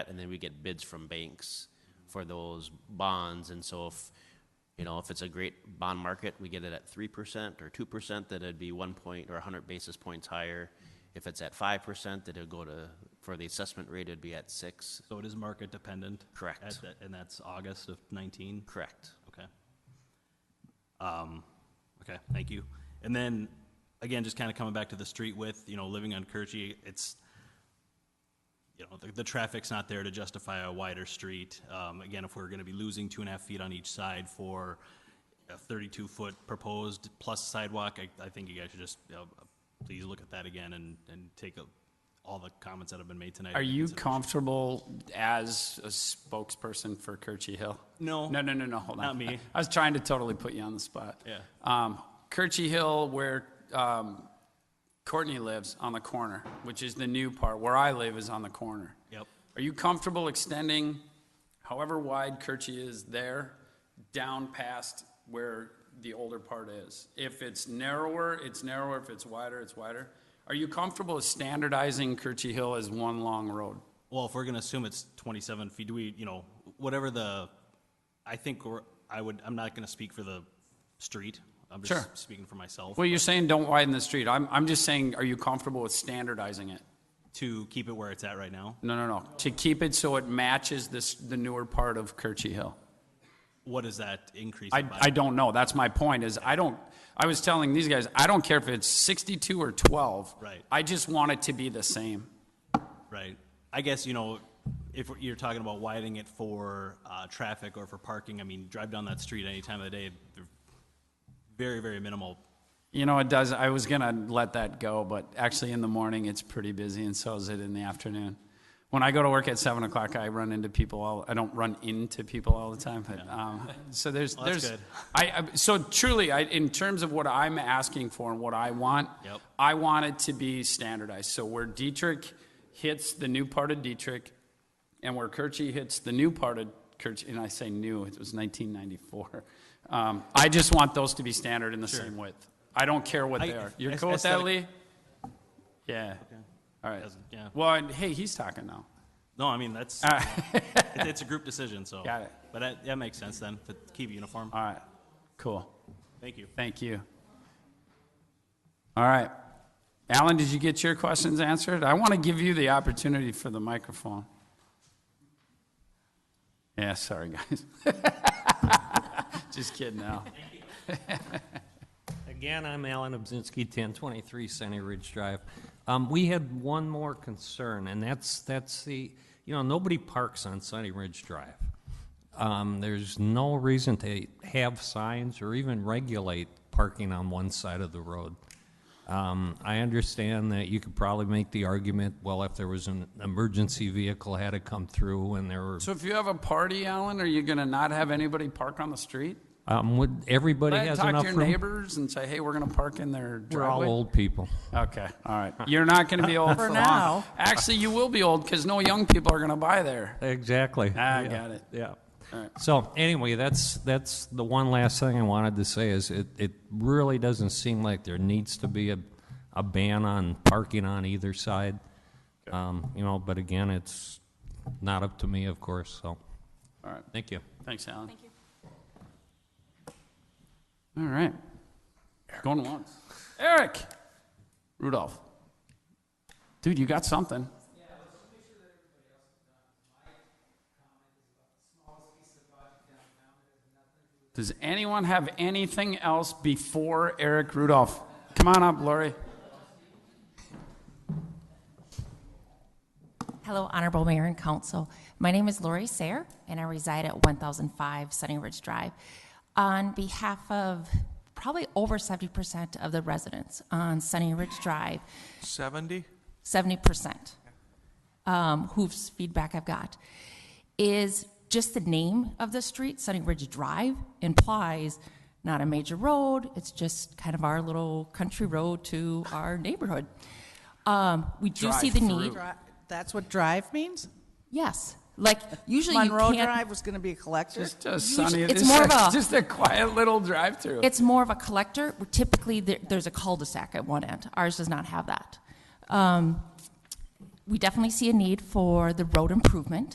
and then we get bids from banks for those bonds, and so if, you know, if it's a great bond market, we get it at three percent or two percent, that it'd be one point or hundred basis points higher. If it's at five percent, that it'll go to, for the assessment rate, it'd be at six. So it is market dependent? Correct. At that- And that's August of 19? Correct. Okay. Um, Okay, thank you. And then, again, just kind of coming back to the street width, you know, living on Kirchy, it's, you know, the, the traffic's not there to justify a wider street. Um, Again, if we're going to be losing two and a half feet on each side for a 32-foot proposed plus sidewalk, I, I think you guys should just, you know, please look at that again and, and take a- all the comments that have been made tonight. Are into you consideration. comfortable as a spokesperson for Kirchy Hill? No. No, no, no, no, hold on. Not me. I was trying to totally put you on the spot. Yeah. Um, Kirchy Hill, where, um, Courtney lives on the corner, which is the new part. Where I live is on the corner. Yep. Are you comfortable extending however wide Kirchy is there down past where the older part is? If it's narrower, it's narrower. If it's wider, it's wider. Are you comfortable standardizing Kirchy Hill as one long road? Well, if we're gonna assume it's twenty-seven feet, do we, you know, whatever the, I think we're, I would, I'm not gonna speak for the street. I'm Sure. just speaking for myself, Well, you're saying don't widen the street. I'm, I'm just saying, are you comfortable with standardizing it? to keep it where it's at right now. No, no, no. To keep it so it matches this, the newer part of Kirchy Hill. What is that increase? I, by? I don't know. That's my point is I don't, I was telling these guys, I don't care if it's 62 or 12. Right. I just want it to be the same. Right. I guess, you know, if you're talking about widening it for uh, traffic or for parking, I mean, drive down that street any time of the day, they're very, very minimal. You know, it does. I was going to let that go, but actually in the morning, it's pretty busy and so is it in the afternoon. When I go to work at seven o'clock, I run into people all, I don't run into people all the time, but, um, so there's, that's there's, good. I, I- so truly, I, in terms of what I'm asking for and what I want, Yep. I want it to be standardized. So where Dietrich hits the new part of Dietrich, and where Kirchy hits the new part of Kirchy, and I say new, it was 1994. Um, I just want those to be standard in the same width. I don't care what I- they are. You're aes- cool with that, Lee? aesthetic- Yeah. All right. Doesn't- yeah. Well, and, hey, he's talking now. No, I mean, that's, All right. it's it's a group decision, so. Uh, Got it. Uh, But that, that makes sense then, to keep it uniform. All right. Cool. Thank you. Thank you. All right. Alan, did you get your questions answered? I want to give you the opportunity for the microphone. Yeah, sorry, guys. Just kidding, Al. Again, I'm Alan Obzinski, 1023 Sunny Ridge Drive. Um, We had one more concern, and that's, that's the, you know, nobody parks on Sunny Ridge Drive. Um, There's no reason to have signs or even regulate parking on one side of the road. Um, I understand that you could probably make the argument, well, if there was an emergency vehicle had to come through and there were, So if you have a party, Alan, are you going to not have anybody park on the street? um, would, everybody Go ahead and has talk enough to your room? neighbors and say, hey, we're going to park in their We're all driveway. old people. Okay, all right. You're not going to be old for, long. now. Actually, you will be old because no young people are going to buy there. Exactly. I Yeah. got it. Yeah. right. So anyway, that's, that's the one last thing I wanted to say is it, it really doesn't seem like there needs to be a, a ban on parking on either side. Um, you know, but again, it's not up to me, of course, so. All right. Thank you. Thanks, Alan. Thank you. All right. Going once. Eric! Rudolph. Dude, you got something. Does anyone have anything else before Eric Rudolph? Come on up, Lori. Hello, Honorable Mayor and Council. My name is Lori Sayer, and I reside at 1005 Sunny Ridge Drive. On behalf of probably over 70% of the residents on Sunny Ridge Drive, 70? 70%, um, whose feedback I've got, is just the name of the street, Sunny Ridge Drive, implies not a major road, it's just kind of our little country road to our neighborhood. Um, We do see the need. Dri- That's what drive means? Yes, like usually Monroe you can't. Drive was going to be a collector? Just a sunny, it's just more a- of a- just a quiet little drive-through. It's more of a collector. Typically, there, there's a cul-de-sac at one end. Ours does not have that. Um, we definitely see a need for the road improvement.